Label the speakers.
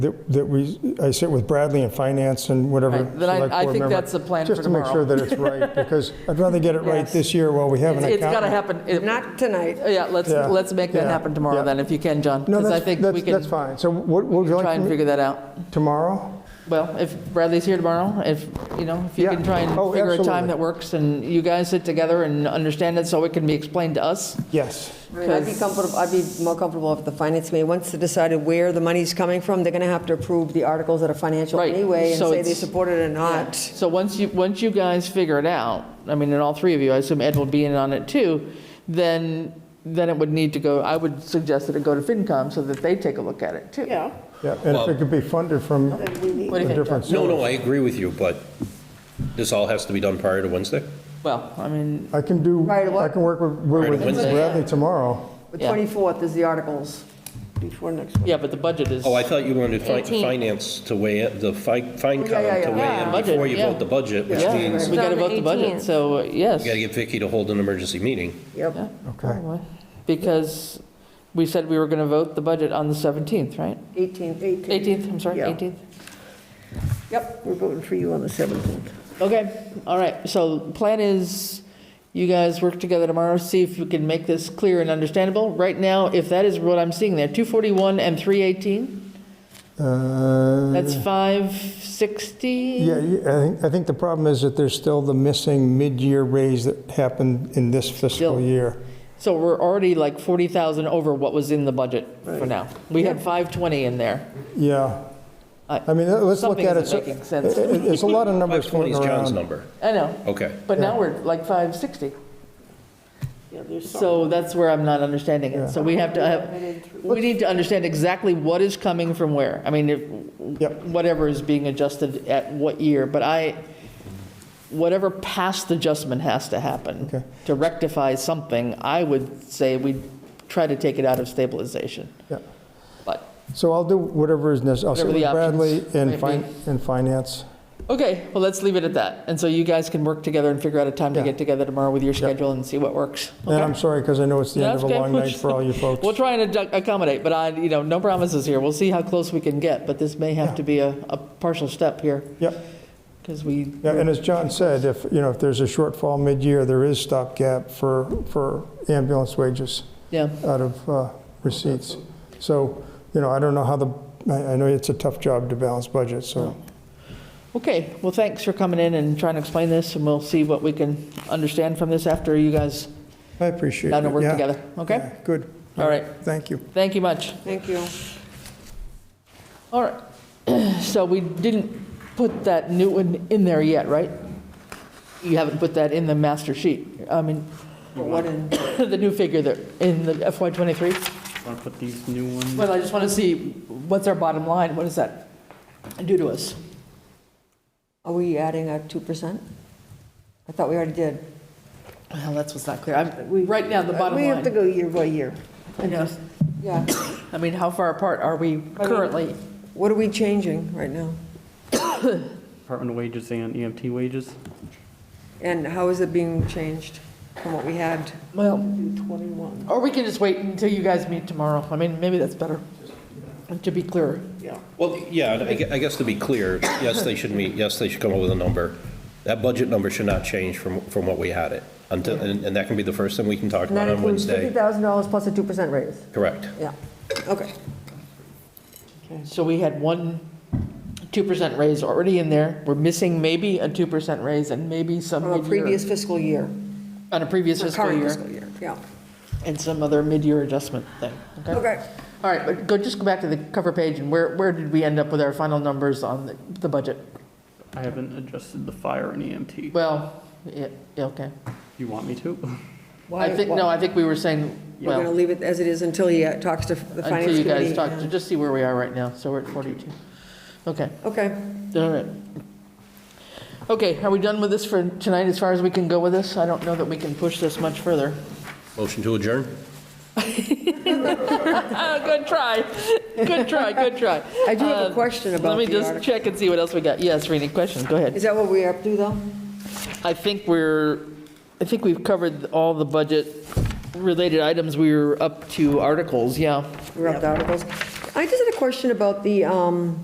Speaker 1: that that we, I sit with Bradley and finance and whatever.
Speaker 2: Right, then I-
Speaker 1: select
Speaker 2: I
Speaker 1: board
Speaker 2: think
Speaker 1: member,
Speaker 2: that's the plan for
Speaker 1: Just to
Speaker 2: tomorrow.
Speaker 1: make sure that it's right, because I'd rather get it right
Speaker 3: Yes.
Speaker 1: this year while we have an
Speaker 2: It's
Speaker 1: accountant.
Speaker 2: got to happen. It-
Speaker 3: Not tonight.
Speaker 2: Yeah, let's,
Speaker 1: Yeah,
Speaker 2: let's make that
Speaker 1: yeah,
Speaker 2: happen tomorrow
Speaker 1: yeah.
Speaker 2: then, if you can, John.
Speaker 1: No,
Speaker 2: Because I
Speaker 1: that's-
Speaker 2: think we
Speaker 1: that's,
Speaker 2: can
Speaker 1: that's fine. So what, would you
Speaker 2: try
Speaker 1: like
Speaker 2: and
Speaker 1: to
Speaker 2: figure that out.
Speaker 1: meet tomorrow?
Speaker 2: Well, if Bradley's here tomorrow, if, you know, if you
Speaker 1: Yeah.
Speaker 2: can try and
Speaker 1: Oh,
Speaker 2: figure a
Speaker 1: absolutely.
Speaker 2: time that works and you guys sit together and understand it so it can be explained to us.
Speaker 1: Yes.
Speaker 3: I mean, I'd be comfortable, I'd be more comfortable if the finance committee, once they decided where the money's coming from, they're going to have to approve the articles that are financial
Speaker 2: Right,
Speaker 3: anyway and
Speaker 2: so
Speaker 3: say they
Speaker 2: it's-
Speaker 3: support it or not.
Speaker 2: So once you, once you guys figure it out, I mean, and all three of you, I assume Ed will be in on it too, then, then it would need to go, I would suggest that it go to FinCom so that they take a look at it too.
Speaker 4: Yeah.
Speaker 1: Yeah, and if it could be funded from a
Speaker 2: What do you think, John?
Speaker 1: different source.
Speaker 5: No, no, I agree with you, but this all has to be done prior to Wednesday?
Speaker 2: Well, I mean,
Speaker 1: I can do,
Speaker 3: Right,
Speaker 1: I
Speaker 3: what-
Speaker 1: can work with- with
Speaker 5: Right, Wednesday.
Speaker 1: Bradley tomorrow.
Speaker 3: The
Speaker 2: Yeah.
Speaker 3: 24th is the articles.
Speaker 4: Before next week.
Speaker 2: yeah, but the budget is.
Speaker 5: Oh, I thought you wanted fi-
Speaker 6: 18.
Speaker 5: finance to weigh in, the fi-
Speaker 3: yeah, yeah,
Speaker 5: FinCom to
Speaker 2: yeah.
Speaker 5: weigh in
Speaker 2: Budget,
Speaker 5: before you
Speaker 2: yeah.
Speaker 5: vote the budget, which
Speaker 2: Yeah,
Speaker 5: means
Speaker 2: we got to
Speaker 6: It's on
Speaker 2: vote
Speaker 6: the
Speaker 2: the budget,
Speaker 6: 18th.
Speaker 2: so uh, yes.
Speaker 5: you gotta get Vicky to hold an emergency meeting.
Speaker 3: Yep.
Speaker 2: Yeah,
Speaker 1: Okay.
Speaker 2: probably. Because we said we were going to vote the budget on the 17th, right?
Speaker 3: 18th, 18th.
Speaker 2: 18th, I'm sorry,
Speaker 4: Yeah.
Speaker 2: 18th.
Speaker 3: Yep.
Speaker 4: We're voting for you on the 17th.
Speaker 2: Okay, all right, so plan is, you guys work together tomorrow, see if you can make this clear and understandable. Right now, if that is what I'm seeing there, 241 and 318,
Speaker 1: Uh,
Speaker 2: that's 560?
Speaker 1: Yeah, you- I think, I think the problem is that there's still the missing mid-year raise that happened in this
Speaker 2: Still.
Speaker 1: fiscal year.
Speaker 2: So we're already like 40,000 over what was in the budget for now. We had 520 in there.
Speaker 1: Yeah.
Speaker 2: I-
Speaker 1: I mean, let's look
Speaker 2: Something
Speaker 1: at it.
Speaker 2: isn't
Speaker 1: so-
Speaker 2: making sense.
Speaker 1: it- it- It's a lot of numbers floating
Speaker 5: 520 is John's
Speaker 1: around.
Speaker 5: number.
Speaker 2: I know,
Speaker 5: Okay.
Speaker 2: but now we're like 560.
Speaker 4: Yeah, there's some.
Speaker 2: So that's where I'm not understanding it. So we have to have, we need to understand exactly what is coming from where. I mean, if,
Speaker 1: Yep.
Speaker 2: whatever is being adjusted at what year, but I, whatever past adjustment has to happen
Speaker 1: Okay.
Speaker 2: to rectify something, I would say we try to take it out of stabilization.
Speaker 1: Yeah.
Speaker 2: But,
Speaker 1: So I'll do whatever is necessary. I'll sit
Speaker 2: Whatever
Speaker 1: with
Speaker 2: the
Speaker 1: Bradley
Speaker 2: options
Speaker 1: and fin-
Speaker 2: might
Speaker 1: and finance.
Speaker 2: okay, well, let's leave it at that. And so you guys can work together and figure out a time to
Speaker 1: Yeah.
Speaker 2: get together tomorrow with your schedule and see what works.
Speaker 1: And I'm sorry, because I know it's the end of
Speaker 2: That's
Speaker 1: a
Speaker 2: okay.
Speaker 1: long night for all you folks.
Speaker 2: We'll try and adju- accommodate, but I, you know, no promises here. We'll see how close we can get, but this may have to be a, a partial step here,
Speaker 1: Yep.
Speaker 2: because we,
Speaker 1: Yeah, and as John said, if, you know, if there's a shortfall mid-year, there is stopgap for, for ambulance wages
Speaker 2: yeah,
Speaker 1: out of uh, receipts. So, you know, I don't know how the, I, I know it's a tough job to balance budgets, so.
Speaker 2: Okay, well, thanks for coming in and trying to explain this, and we'll see what we can understand from this after you guys
Speaker 1: I appreciate it.
Speaker 2: down to work
Speaker 1: yeah.
Speaker 2: together, okay?
Speaker 1: Yeah, Good.
Speaker 2: All right,
Speaker 1: Thank you.
Speaker 2: thank you much.
Speaker 3: Thank you.
Speaker 2: All right, so we didn't put that new one in there yet, right? You haven't put that in the master sheet, I mean,
Speaker 3: What in?
Speaker 2: the new figure that, in the FY '23?
Speaker 7: Want to put these new ones?
Speaker 2: Well, I just want to see, what's our bottom line? What does that do to us?
Speaker 3: Are we adding a 2%? I thought we already did.
Speaker 2: Well, that's what's not clear. I'm, right now,
Speaker 3: uh,
Speaker 2: the bottom
Speaker 4: We have to
Speaker 2: line.
Speaker 4: go year by year.
Speaker 2: Yeah.
Speaker 3: Yeah.
Speaker 2: I mean, how far apart are we currently?
Speaker 3: What are we changing right now?
Speaker 7: Department wages and EMT wages?
Speaker 3: And how is it being changed from what we had?
Speaker 2: Well, or we can just wait until you guys meet tomorrow. I mean, maybe that's better, to be clearer.
Speaker 5: Well, yeah, and I gue- I guess to be clear, yes, they should meet, yes, they should come up with a number. That budget number should not change from, from what we had it. Until, and and that can be the first thing we can talk
Speaker 3: And that
Speaker 5: about on
Speaker 3: includes
Speaker 5: Wednesday.
Speaker 3: $50,000 plus a 2% raise?
Speaker 5: Correct.
Speaker 3: Yeah, okay.
Speaker 2: So we had one 2% raise already in there. We're missing maybe a 2% raise and maybe some
Speaker 3: From a
Speaker 2: mid-year-
Speaker 3: previous fiscal year.
Speaker 2: on a previous
Speaker 3: Or
Speaker 2: fiscal
Speaker 3: current
Speaker 2: year
Speaker 3: fiscal year, yeah.
Speaker 2: and some other mid-year adjustment thing, okay?
Speaker 3: Okay.
Speaker 2: All right, but go, just go back to the cover page, and where, where did we end up with our final numbers on the, the budget?
Speaker 7: I haven't adjusted the fire and EMT.
Speaker 2: Well, yeah, yeah, okay.
Speaker 7: You want me to?
Speaker 2: I think, no, I think we were saying,
Speaker 3: We're going to
Speaker 2: well,
Speaker 3: leave it as it is until he uh, talks to the
Speaker 2: until
Speaker 3: finance
Speaker 2: you
Speaker 3: committee.
Speaker 2: guys talk, to just see where we are right now, so we're at 42. Okay,
Speaker 3: Okay,
Speaker 2: all right. Okay, are we done with this for tonight, as far as we can go with this? I don't know that we can push this much further.
Speaker 5: Motion to adjourn?
Speaker 2: Oh, good try, good try, good try.
Speaker 3: I do have a
Speaker 2: Uh,
Speaker 3: question
Speaker 2: Let
Speaker 3: about
Speaker 2: me
Speaker 3: the
Speaker 2: just
Speaker 3: article.
Speaker 2: check and see what else we got. Yes, Rini, question, go ahead.
Speaker 3: is that what we're up to though?
Speaker 2: I think we're, I think we've covered all the budget-related items. We were up to articles, yeah.
Speaker 3: We're up to articles? I just had a question about the, um,